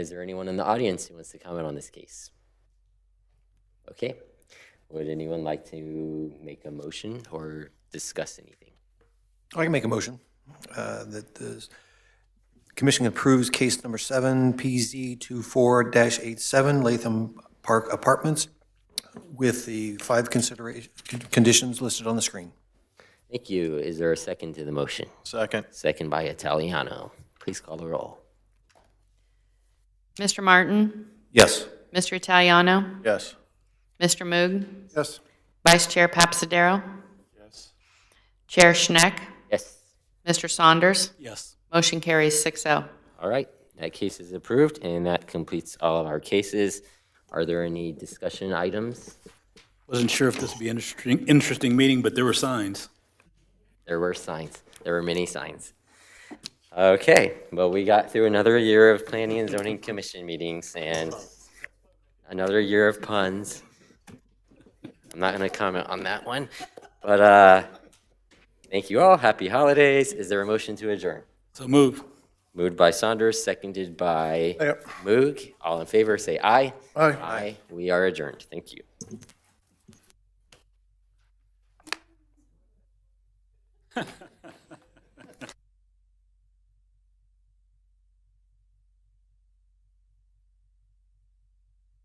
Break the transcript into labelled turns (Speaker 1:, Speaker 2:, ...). Speaker 1: Is there anyone in the audience who wants to comment on this case? Okay. Would anyone like to make a motion or discuss anything?
Speaker 2: I can make a motion uh, that the commission approves case number seven, PZ 24-87, Latham Park Apartments, with the five consideration, conditions listed on the screen.
Speaker 1: Thank you. Is there a second to the motion?
Speaker 3: Second.
Speaker 1: Second by Italiano. Please call the roll.
Speaker 4: Mr. Martin?
Speaker 2: Yes.
Speaker 4: Mr. Italiano?
Speaker 3: Yes.
Speaker 4: Mr. Moog?
Speaker 2: Yes.
Speaker 4: Vice Chair Papsadero? Chair Schneck?
Speaker 1: Yes.
Speaker 4: Mr. Saunders?
Speaker 3: Yes.
Speaker 4: Motion carries oh. 6-0.
Speaker 1: All right. That case is approved, and that completes all of our cases. Are there any discussion items?
Speaker 5: Wasn't sure if this would be an interesting, interesting meeting, but there were signs.
Speaker 1: There were signs. There were many signs. Okay, well, we got through another year of planning and zoning commission meetings and another year of puns. I'm not gonna comment on that one, but, uh, thank you all. Happy holidays. Is there a motion to adjourn?
Speaker 5: So move.
Speaker 1: Moved by Saunders, seconded by
Speaker 3: Yep.
Speaker 1: Moog. All in favor, say aye.
Speaker 3: Aye.
Speaker 1: Aye. We are adjourned. Thank you.